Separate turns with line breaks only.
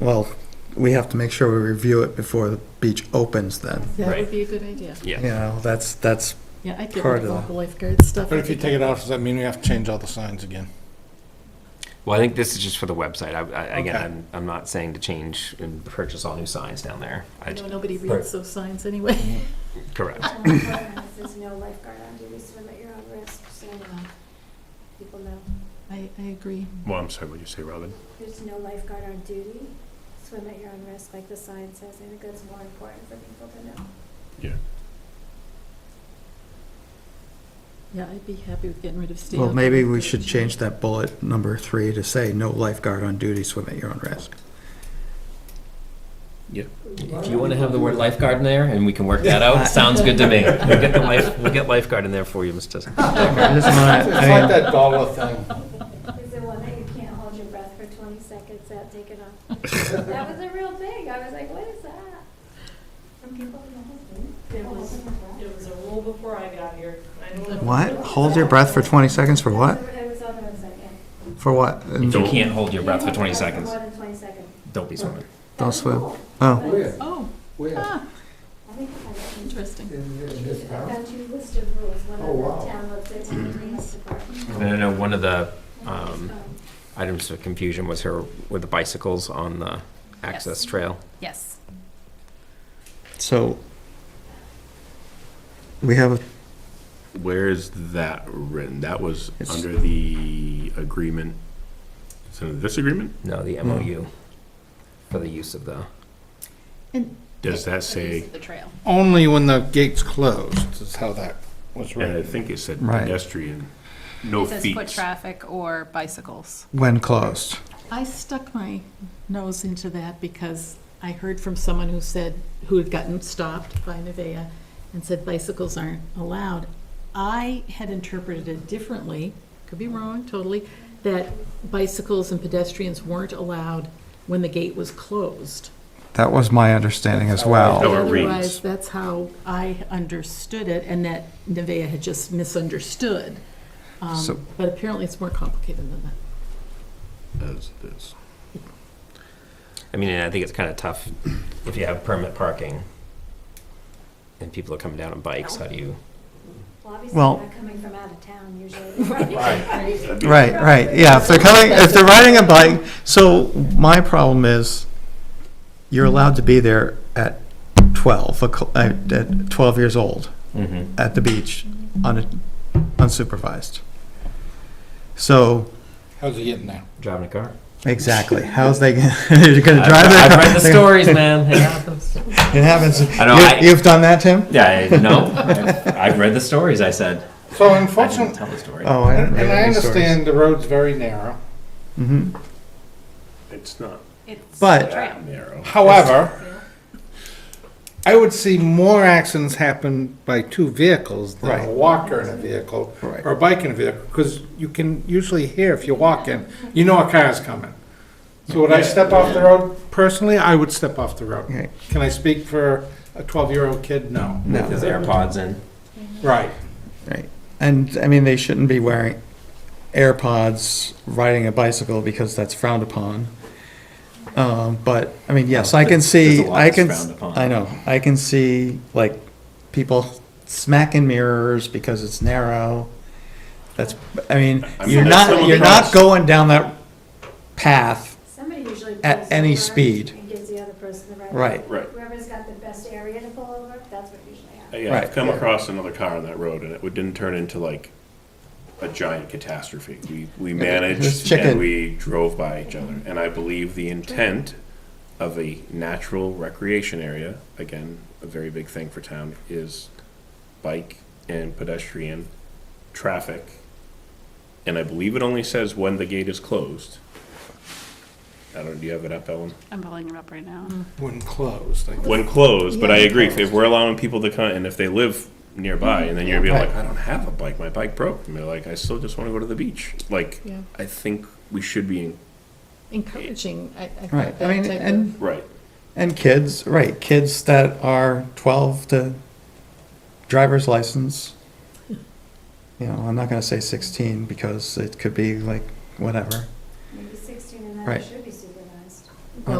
Well, we have to make sure we review it before the beach opens then.
That
Right.
would be a good idea.
Yeah.
You know, that's, that's,
Yeah, I'd get
Part
rid of
of
all
the-
the lifeguard stuff.
But if you take it off, does that mean we have to change all the signs again?
Well, I think this is just for the website. I, I, again,
Okay.
I'm, I'm not saying to change and purchase all new signs down there. I,
I
j-
know nobody
Right. Mm-hmm.
reads those signs anyway.
correct.
So my preference is no lifeguard on duty, swim at your own risk, so uh, people know.
I, I agree.
Well, I'm sorry, what did you say, Robin?
There's no lifeguard on duty, swim at your own risk, like the sign says, I think that's more important for people to know.
Yeah, I'd be happy with getting rid of stand.
well, maybe we should change that bullet number three to say, no lifeguard on duty, swim at your own risk.
If you want to have the word lifeguard in there and we can work that out, sounds good to me. We'll get the life, we'll get lifeguard in there for you, Mr.
I just
It's
wanna- I
like
mean,
that dollar thing.
Is the one that you can't hold your breath for twenty seconds at taking off. That was a real thing, I was like, what is that? From people in the husband.
It was- It was a rule before I got here. I knew it-
What? Hold your breath for 20 seconds for what?
It was on the website, yeah.
For what?
If you can't hold your breath for 20
You can't
seconds,
hold your breath for More than twenty seconds.
don't be swimming.
Don't
That's
swim.
cool.
Oh,
Oh,
Where?
ah,
I think I have it.
interesting.
I've got two list of rules, one
Oh, wow.
on the town website, one on the police department.
And I know one of the um,
Um,
items of confusion was her with the bicycles on the access trail.
Yes.
so we have, a-
Where is that written? That was
It's-
under the agreement, it's under this agreement?
No, the MOU for the use of the.
Does that say,
The trail.
Only when the gate's closed is how that was
and I
written.
think it said
Right.
pedestrian, no Oh, feet.
traffic or bicycles.
when closed.
I stuck my nose into that because I heard from someone who said, who had gotten stopped by Nevaeh and said bicycles aren't allowed. I had interpreted it differently, could be wrong totally, that bicycles and pedestrians weren't allowed when the gate was closed.
That was my understanding as well.
No, it reads.
Otherwise, that's how I understood it and that Nevaeh had just misunderstood. Um,
So-
But apparently it's more complicated than that.
As this.
I mean, and I think it's kind of tough if you have permit parking and people are coming down on bikes, how do you?
Well, obviously,
Well-
they're not coming from out of town usually.
Right, right, yeah, if they're coming, if they're riding a bike, so my problem is, you're allowed to be there at twelve, o'clock- uh, at twelve years old,
Mm-hmm.
at the beach, un- unsupervised. So,
How's it getting there?
Driving a car.
exactly, how's they, gonna- you're gonna
I've-
drive
I've
their
read the stories, man. It happens.
It happens,
I know, I-
You- you've done that, Tim?
Yeah, I- no, I've- I've read the stories. I said,
So
I didn't
unfortunately,
tell the story.
Oh, I haven't
and
read
and I
any stories.
understand the road's very narrow.
Mhm.
It's not
But,
that narrow.
However, I would see more accidents happen by two vehicles than
Right.
a walker in a vehicle
Right.
or a bike in a vehicle, because you can usually hear if you're walking, you know a car's coming. So would I step off the road? Personally, I would step off the road.
okay,
Can I speak for a 12-year-old kid? No.
no.
His AirPods in.
Right.
Right. And, I mean, they shouldn't be wearing AirPods, riding a bicycle, because that's frowned upon. Um, but, I mean, yes, I can
There's
see,
a lot
I
that's
can,
frowned upon.
I know, I can see, like, people smacking mirrors because it's narrow. That's, I mean,
I mean,
you're
that's some
not,
of
you're
the
not
cars.
going down that path,
Somebody usually.
At
pulls
any
over
speed.
And gives the other person the right.
right.
Right.
Whoever's got the best area to pull over, that's what usually happens.
Uh, Yeah,
Right.
I've come across another car on that road and it would- didn't turn into like a giant catastrophe. We, we
was
managed
chicken.
and we drove by each other. And I believe the intent of a natural recreation area, again, a very big thing for town, is bike and pedestrian traffic. And I believe it only says when the gate is closed. I don't, do you have it up, Ellen?
I'm pulling it up right now.
When closed. like-
When closed, but I
Yeah.
agree, if we're allowing people to come, and if they live nearby, and then you're gonna be
Right.
like, I don't have a bike, my bike broke, and they're like, I still just wanna go to the beach, like,
Yeah.
I think we should be, in-
Encouraging, I, I think
Right, I
that
mean,
type of-
and
right,
And kids, right, kids that are 12 to driver's license. You know, I'm not going to say 16 because it could be like whatever.
Maybe sixteen and
Right.
that should